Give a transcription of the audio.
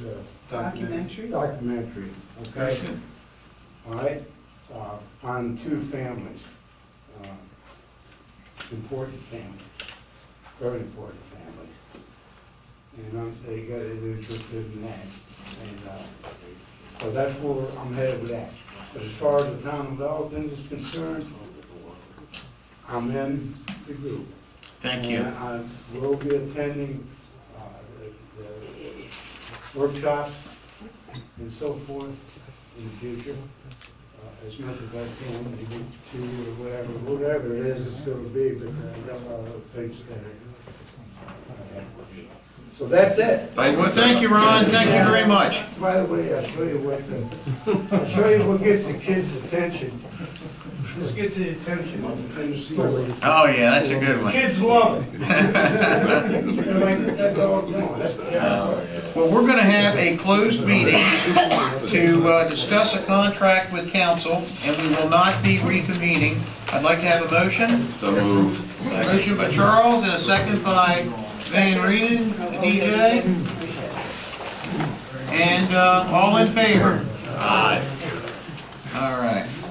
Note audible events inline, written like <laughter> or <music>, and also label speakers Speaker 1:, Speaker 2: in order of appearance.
Speaker 1: the
Speaker 2: Documentary?
Speaker 1: Documentary, okay? All right, uh, on two families, uh, important families, very important families. And I'm, they got it interested in that, and, uh, so that's where I'm headed with that. But as far as the town of Dalton is concerned, I'm in the group.
Speaker 3: Thank you.
Speaker 1: And I will be attending uh, the- the workshops and so forth in the future, uh, as much as I can, maybe two or whatever, whatever it is it's going to be, but I've got a lot of things that are. So that's it.
Speaker 3: Well, thank you, Ron, thank you very much.
Speaker 1: By the way, I'll show you what, the- I'll show you what gets the kids' attention. This gets the attention of the story.
Speaker 3: Oh, yeah, that's a good one.
Speaker 1: Kids love it. <laughs> They're like, "That dog, no, that's terrible."
Speaker 3: Well, we're gonna have a closed meeting to uh, discuss a contract with council, and we will not be reconvening. I'd like to have a motion.
Speaker 4: So move.
Speaker 3: Motion by Charles and a second by Van Reenen, DJ. And uh, all in favor?
Speaker 4: Aye.